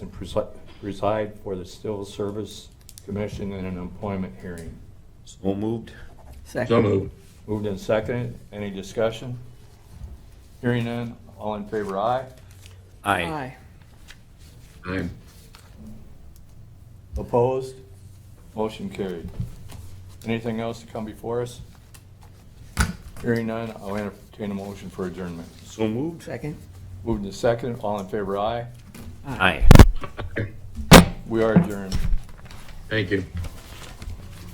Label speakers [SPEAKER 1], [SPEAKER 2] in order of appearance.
[SPEAKER 1] presi- preside for the Civil Service Commission in an employment hearing.
[SPEAKER 2] So moved.
[SPEAKER 3] So
[SPEAKER 4] Second.
[SPEAKER 3] moved.
[SPEAKER 1] Moved and seconded. Any discussion? Hearing none. All in favor, aye.
[SPEAKER 2] Aye.
[SPEAKER 4] Aye.
[SPEAKER 3] Aye.
[SPEAKER 1] Opposed? Motion carried. Anything else to come before us? Hearing none, I'll entertain a motion for adjournment.
[SPEAKER 2] So moved.
[SPEAKER 4] Second.
[SPEAKER 1] Moved and seconded. All in favor, aye.
[SPEAKER 2] Aye.
[SPEAKER 1] We are adjourned.
[SPEAKER 3] Thank you.